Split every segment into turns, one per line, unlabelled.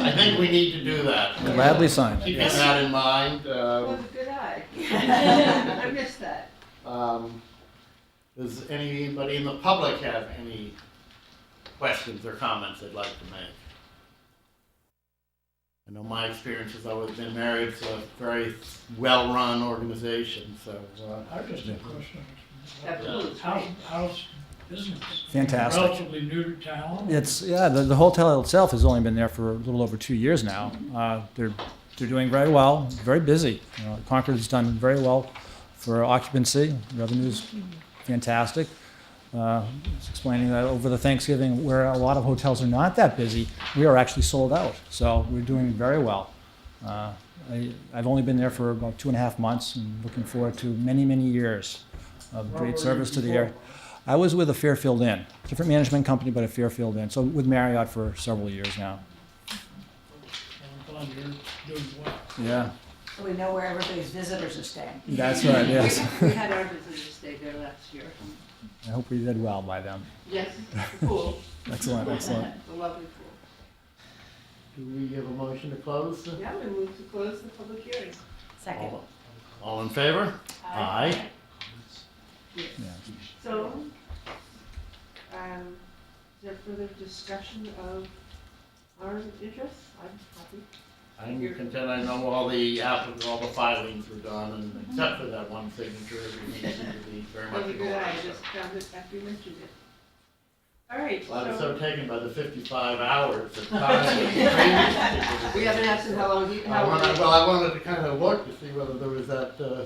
I think we need to do that.
Gladly signed.
Keeping that in mind, um,
Good eye. I missed that.
um, does anybody in the public have any questions or comments they'd like to make? I know my experience has always been married, it's a very well-run organization, so, uh,
I just have a question.
That blue is
How's,
right.
how's business?
Fantastic.
Relatively new to town?
It's, yeah, the, the hotel itself has only been there for a little over two years now. Uh, they're, they're doing very well, very busy. You know, Concord's done very well for occupancy, revenue's fantastic. Uh, it's explaining that over the Thanksgiving, where a lot of hotels are not that busy, we are actually sold out. So we're doing very well. Uh, I, I've only been there for about two and a half months and looking forward to many, many years of
Where were
great
you
service to the
before?
area. I was with a Fairfield Inn, different management company, but a Fairfield Inn. So with Marriott for several years now.
I'm glad you're doing well.
Yeah,
So we know where everybody's visitors are staying.
that's right. Yes,
We had our visitors stay there last year.
I hope we did well by them.
Yes, the pool.
Excellent, excellent.
The lovely pool.
do we give a motion to close?
Now we move to close the public hearing.
Second.
All- All in favor? Aye.
So, um, is there further discussion of our interests? I'm happy.
I'm content, I know all the applicants, all the filings were done, and except for that one signature, we need to be very much.
That was a good
ignored,
eye, I
so.
just found it after you mentioned it. All right,
Well, I was
so
so taken by the fifty-five hours of time. that
we haven't asked him how long he,
I
how long.
wanted, well, I wanted to kind of look to see whether there was that uh,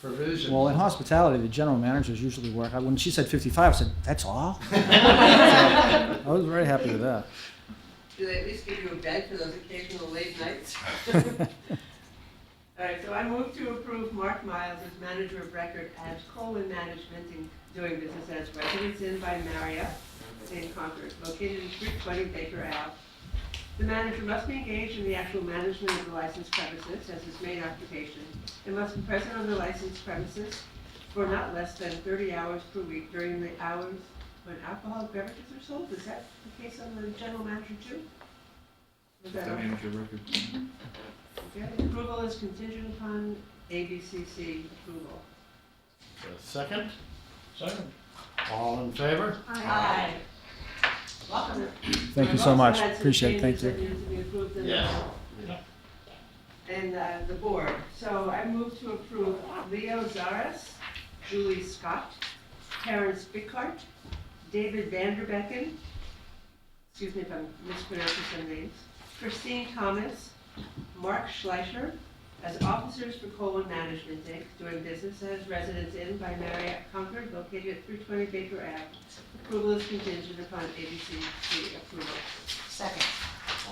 provision.
Well, in hospitality, the general managers usually work. When she said 55, I said, that's all? I was very happy with that.
Do they at least give you a bed for those occasional late nights? All right, so I move to approve Mark Miles as manager of record at Coleman Management in doing business as Residence Inn by Marriott in Concord, located at three twenty Baker Ave. The manager must be engaged in the actual management of the licensed premises as his main occupation, and must be present on the licensed premises for not less than thirty hours per week during the hours when alcoholic beverages are sold. Is that the case on the general manager too? Is that all? Okay, approval is contingent upon ABCC approval.
A Second,
Second,
all in favor?
Aye.
Welcome.
Thank you so much. Appreciate it. Thank
I've also
you.
had some changes that need to be approved in the-
Yes.
And uh, the board. So I move to approve Leo Zaras, Julie Scott, Terrence Bickart, David Vanderbecken, excuse me if I'm mispronouncing some names, Christine Thomas, Mark Schleicher, as officers for Colwyn Management Inc., doing business as Residence Inn by Marriott Concord, located at 320 Baker Ave. Approval is contingent upon ABCC approval.
Second.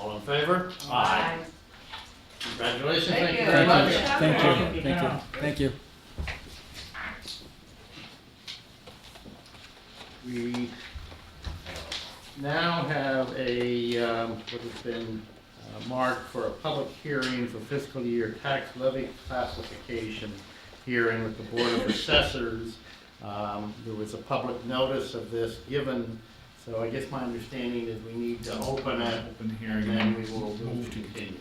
All in favor? Congratulations,
Thank
thank you
you.
very
Thank you.
much.
Thank you. Thank you. Thank you.
We now have a, um, what has been uh, marked for a public hearing for fiscal year tax levy classification hearing with the Board of Assessors. Um, There was a public notice of this given, so I guess my understanding is we need to open it
Open the hearing
and then we will move
move
to
to
continue.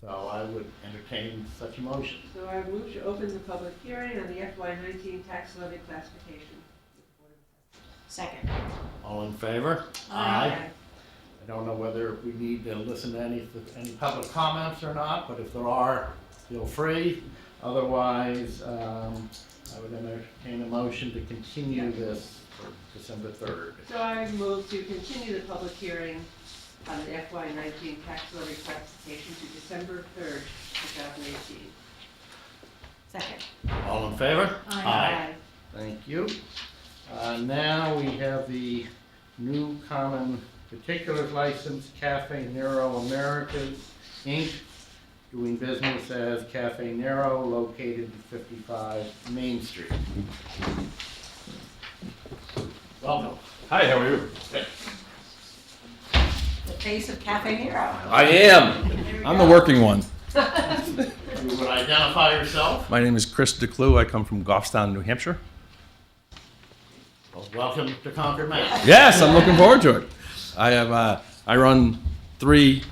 So I would entertain such a motion.
So I move to open the public hearing on the FY nineteen tax levy classification.
Second.
All in favor?
Aye.
I don't know whether we need to listen to any, any public comments or not, but if there are, feel free. Otherwise, um, I would entertain a motion to continue this for December third.
So I move to continue the public hearing on the FY nineteen tax levy classification to December third, two thousand eighteen.
Second.
All in favor?
Aye.
Thank you. Uh, now we have the new common particulars license, Cafe Nero Americas, Inc., doing business as Cafe Nero, located at fifty-five Main Street. Welcome.
Hi, how are you?
The face of Cafe Nero.
I am. I'm the working one.
You would identify yourself?
My name is Chris DeClue. I come from Goffstown, New Hampshire.
Well, Welcome to Concord, Mass.
Yes, I'm looking forward to it. I have. Uh, I run three